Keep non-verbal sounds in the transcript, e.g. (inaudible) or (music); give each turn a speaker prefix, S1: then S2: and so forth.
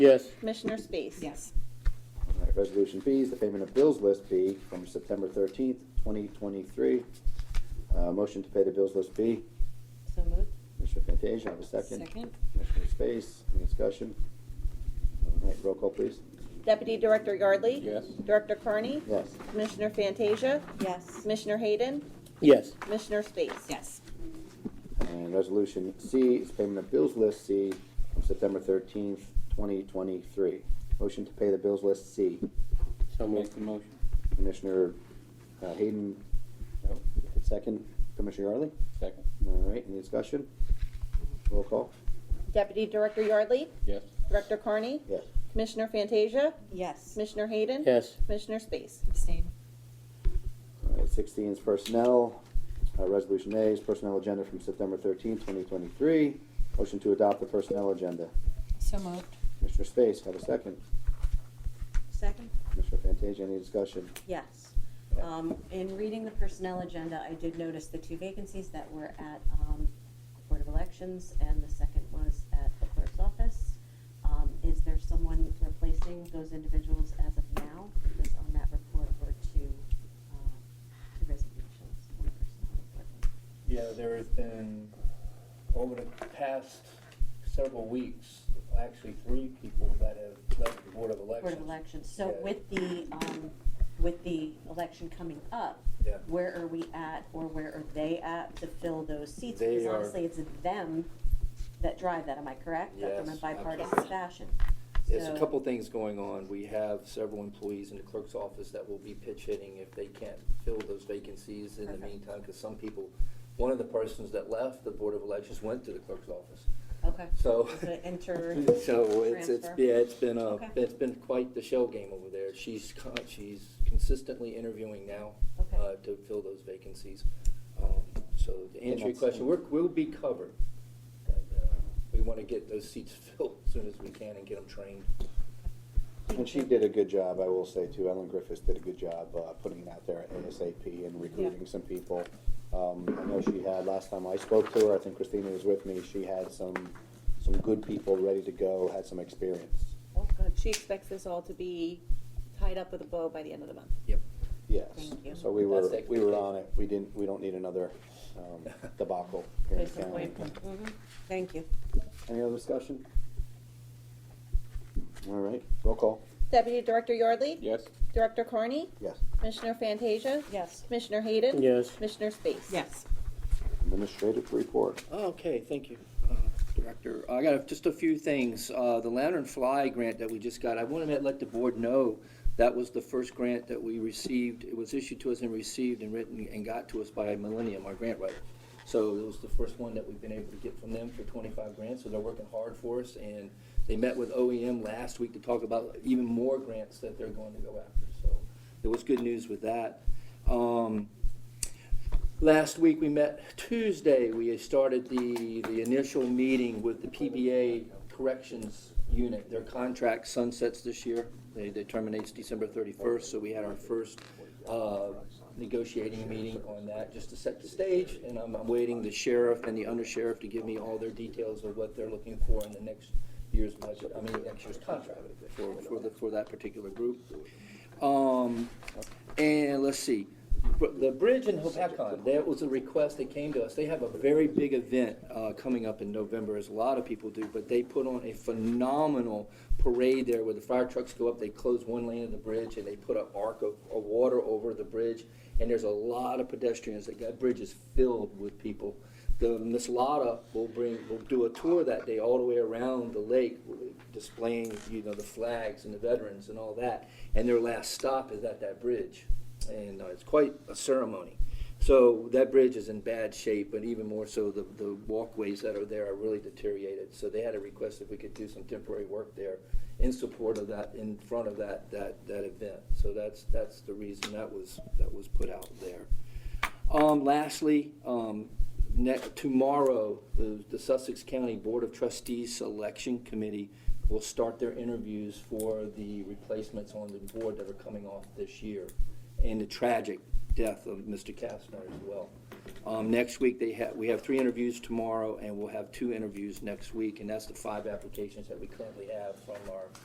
S1: Yes.
S2: Commissioner Space.
S3: Yes.
S4: All right, Resolution B is the payment of bills list B from September thirteenth, twenty twenty-three. Uh, motion to pay the bills list B.
S3: So moved.
S4: Commissioner Fantasia, have a second.
S3: Second.
S4: Commissioner Space, any discussion? All right, roll call, please.
S2: Deputy Director Yardley.
S1: Yes.
S2: Director Carney.
S4: Yes.
S2: Commissioner Fantasia.
S3: Yes.
S2: Commissioner Hayden.
S1: Yes.
S2: Commissioner Space.
S3: Yes.
S4: And Resolution C is payment of bills list C from September thirteenth, twenty twenty-three. Motion to pay the bills list C.
S1: So moved. the motion.
S4: Commissioner uh, Hayden,
S1: No.
S4: second. Commissioner Yardley?
S1: Second.
S4: All right, any discussion? Roll call?
S2: Deputy Director Yardley.
S1: Yes.
S2: Director Carney.
S4: Yes.
S2: Commissioner Fantasia.
S3: Yes.
S2: Commissioner Hayden.
S1: Yes.
S2: Commissioner Space.
S3: Abstain.
S4: All right, sixteen is personnel. Uh, resolution A is personnel agenda from September thirteenth, twenty twenty-three. Motion to adopt the personnel agenda.
S3: So moved.
S4: Commissioner Space, have a second.
S5: Second?
S4: Commissioner Fantasia, any discussion?
S5: Yes. Um, In reading the personnel agenda, I did notice the two vacancies that were at um, the Board of Elections, and the second was at the clerk's office. Um, Is there someone replacing those individuals as of now? Because on that report were two uh, two resignations on the personnel report.
S6: Yeah, there has been, over the past several weeks, actually three people that have left the Board of Elections.
S5: Board of Elections. So
S6: Yeah.
S5: with the, um, with the election coming up,
S6: Yeah.
S5: where are we at or where are they at to fill those seats?
S6: They
S5: Because
S6: are-
S5: honestly, it's them that drive that, am I correct? But From a
S6: Yes,
S5: bipartisan
S6: absolutely.
S5: fashion.
S7: There's a
S5: So-
S7: couple things going on. We have several employees in the clerk's office that will be pitch hitting if they can't fill those vacancies in the
S5: Perfect.
S7: meantime, because some people, one of the persons that left the Board of Elections went to the clerk's office.
S5: Okay.
S7: So,
S5: Is it enter?
S7: (laughs) so it's, it's,
S5: transfer?
S7: yeah, it's been a,
S5: Okay.
S7: it's been quite the shell game over there. She's, con- she's consistently interviewing now
S5: Okay.
S7: uh, to fill those vacancies. Um, So to answer your
S4: that's-
S7: question, we're, we'll be covered. But, uh, We want to get those seats (laughs) filled as soon as we can and get them trained.
S4: And she did a good job, I will say too, Ellen Griffiths did a good job, uh, putting it out there at ASAP and recruiting some people. Um, I know she had, last time I spoke to her, I think Christina was with me, she had some, some good people ready to go, had some experience.
S5: Oh, good.
S2: She expects this all to be tied up with a bow by the end of the month.
S7: Yep.
S4: Yes,
S5: Thank you.
S4: so we were,
S7: That's
S4: we were on it, we didn't, we don't need another, um, debacle here in
S5: Good
S4: the county.
S5: point.
S2: Mm-hmm.
S5: Mhm. Thank you.
S4: Any other discussion? All right, roll call,
S2: Deputy Director Yardley.
S1: Yes.
S2: Director Carney.
S4: yes.
S2: Commissioner Fantasia.
S5: Yes.
S2: Commissioner Hayden.
S1: Yes.
S2: Commissioner Space.
S3: Yes.
S4: Administrative report.
S7: Oh, Okay, thank you, uh, Director. I got just a few things. Uh, The Lantern Fly grant that we just got, I wanted to let the board know that was the first grant that we received. It was issued to us and received and written and got to us by Millennium, our grant writer. So it was the first one that we've been able to get from them for 25 grants, so they're working hard for us. And they met with OEM last week to talk about even more grants that they're going to go after. So there was good news with that. Um, Last week, we met Tuesday, we started the, the initial meeting with the PBA Corrections Unit. Their contract sunsets this year, they, they terminates December thirty-first, so we had our first, uh, negotiating meeting on that, just to set the stage. And I'm, I'm waiting the sheriff and the undersheriff to give me all their details of what they're looking for in the next year's budget, I mean, next year's contract for, for the, for that particular group. Um, and let's see, Br- the bridge in Hopatcon, that was a request that came to us. They have a very big event uh, coming up in November, as a lot of people do, but they put on a phenomenal parade there where the fire trucks go up, they close one lane of the bridge, and they put an arc of, of water over the bridge, and there's a lot of pedestrians. That that bridge is filled with people. The Miss Lotta will bring, will do a tour that day all the way around the lake, displaying, you know, the flags and the veterans and all that. And their last stop is at that bridge, and uh, it's quite a ceremony. So that bridge is in bad shape, but even more so, the, the walkways that are there are really deteriorated. So they had a request if we could do some temporary work there in support of that, in front of that, that, that event. So that's, that's the reason that was, that was put out there. Um, lastly, um, ne- tomorrow, the, the Sussex County Board of Trustees Selection Committee will start their interviews for the replacements on the board that are coming off this year. And the tragic death of Mr. Kessler.
S6: Castner as well.
S7: Um, next week, they have, we have three interviews tomorrow, and we'll have two interviews next week, and that's the five applications that we currently have from our